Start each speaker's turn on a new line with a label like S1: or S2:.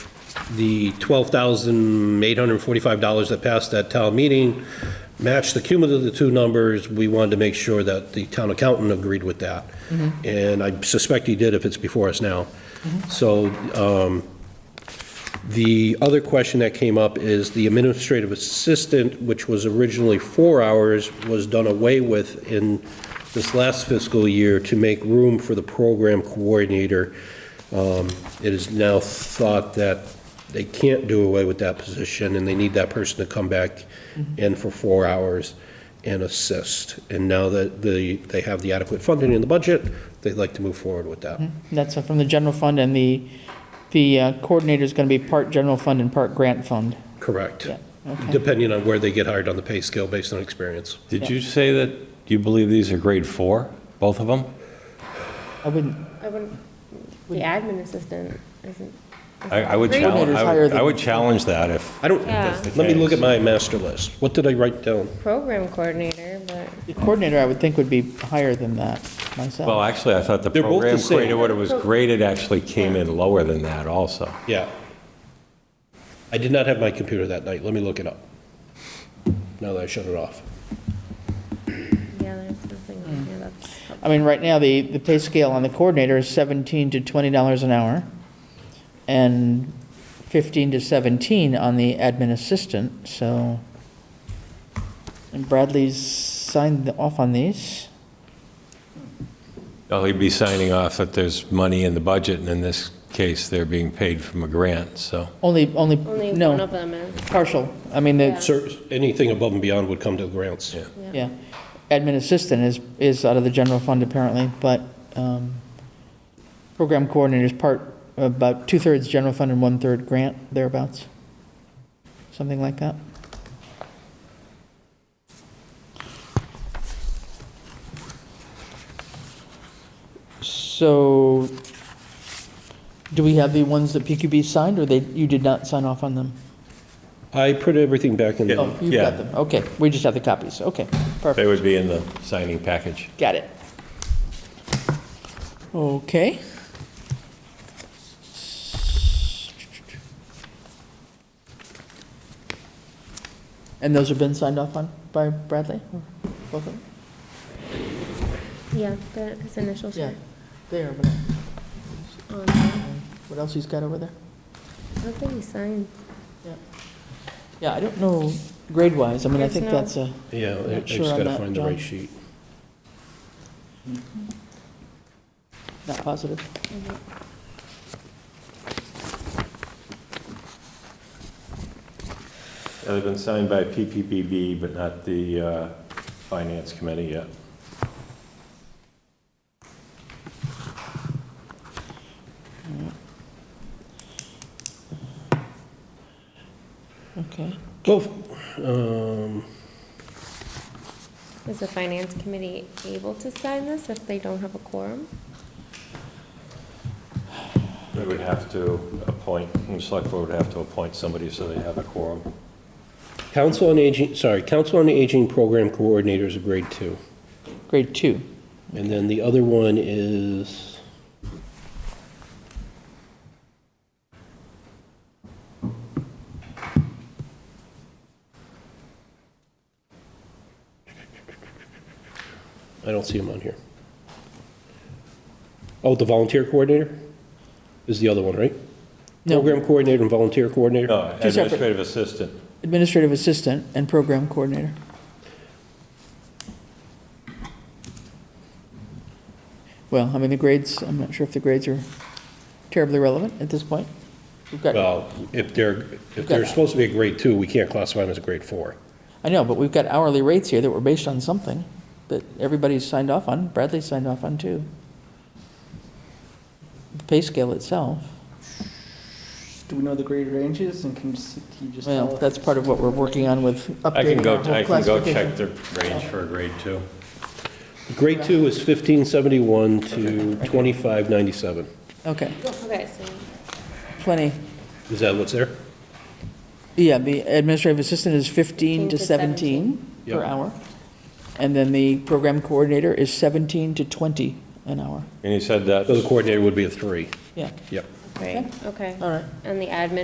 S1: the $12,845 that passed that town meeting matched the cumulative of the two numbers. We wanted to make sure that the town accountant agreed with that. And I suspect he did if it's before us now. So um, the other question that came up is the administrative assistant, which was originally four hours, was done away with in this last fiscal year to make room for the program coordinator. Um, It is now thought that they can't do away with that position, and they need that person to come back
S2: Mm-hmm.
S1: in for four hours and assist. And now that the, they have the adequate funding in the budget, they'd like to move forward with that.
S2: That's from the general fund, and the, the uh, coordinator's going to be part general fund and part grant fund.
S1: Correct.
S2: Yeah, okay.
S1: Depending on where they get hired on the pay scale based on experience.
S3: Did you say that you believe these are grade four, both of them?
S2: I wouldn't,
S4: I wouldn't, the admin assistant isn't.
S3: I I would
S4: Grade
S3: challenge,
S2: is higher than-
S3: I would challenge that if,
S1: I don't,
S4: Yeah.
S1: let me look at my master list. What did I write down?
S4: Program coordinator, but
S2: the coordinator, I would think, would be higher than that
S3: well,
S2: myself.
S3: actually, I thought the
S1: They're both the
S3: program
S1: same.
S3: created what it was graded actually came in lower than that also.
S1: Yeah. I did not have my computer that night. Let me look it up. Now that I shut it off.
S4: yeah, there's nothing on here that's.
S2: I mean, right now, the, the pay scale on the coordinator is 17 to $20 an hour, and 15 to 17 on the admin assistant, so. And Bradley's signed off on these.
S3: Well, he'd be signing off that there's money in the budget, and in this case, they're being paid from a grant, so.
S2: Only, only,
S4: Only one
S2: no,
S4: of them is,
S2: partial. I mean, the,
S1: Sir, anything above and beyond would come to grants.
S2: Yeah, admin assistant is, is out of the general fund apparently, but um, program coordinator is part, about two-thirds general fund and one-third grant, thereabouts, something like that. So, do we have the ones that PQB signed, or they, you did not sign off on them?
S1: I put everything back in.
S2: Oh, you've
S3: Yeah.
S2: got them, okay, we just have the copies, okay, perfect.
S3: They would be in the signing package.
S2: Got it. Okay. And those have been signed off on by Bradley? Both of them?
S4: yeah, the, his initials
S2: Yeah,
S4: are
S2: they are, but
S4: on there.
S2: what else he's got over there?
S4: I don't think he signed.
S2: Yeah, I don't know grade-wise, I mean, I
S4: There's
S2: think
S4: no-
S2: that's a,
S1: Yeah, I I
S2: Not
S1: just
S2: sure on
S1: gotta
S2: that,
S1: find the
S2: John.
S1: right sheet.
S2: not positive.
S3: They've been signed by PPPB, but not the uh, Finance Committee yet.
S2: Okay,
S1: Well, um,
S4: Is the finance committee able to sign this if they don't have a quorum?
S3: They would have to appoint, the select board would have to appoint somebody so they have a quorum.
S1: Council on Aging, sorry, Council on Aging Program Coordinator is a grade two.
S2: grade two.
S1: And then the other one is, I don't see him on here. Oh, the volunteer coordinator is the other one, right?
S2: No,
S1: Program coordinator and volunteer coordinator?
S3: No,
S2: Two separate-
S3: administrative assistant.
S2: administrative assistant and program coordinator. Well, I mean, the grades, I'm not sure if the grades are terribly relevant at this point. We've got,
S1: Well, if they're, if they're supposed to be a grade two, we can't classify them as a grade four.
S2: I know, but we've got hourly rates here that were based on something that everybody's signed off on, Bradley signed off on too. The Pay scale itself,
S5: Do we know the grade ranges and can you s- can you just tell?
S2: well,
S5: us?
S2: that's part of what we're working on with
S3: I can
S2: updating
S3: go,
S2: our whole
S3: I can go
S2: classification.
S3: check the range for a grade two.
S1: Grade two is 1571 to 2597.
S2: Okay,
S4: Okay, so
S2: plenty.
S1: Is that what's there?
S2: Yeah, the administrative assistant is 15 to
S4: 15 to
S2: 17 per
S1: Yep.
S2: hour. And then the program coordinator is 17 to 20 an hour.
S3: And you said that.
S1: So the coordinator would be a three.
S2: Yeah,
S1: Yep.
S4: great, okay.
S2: all right.
S4: And the admin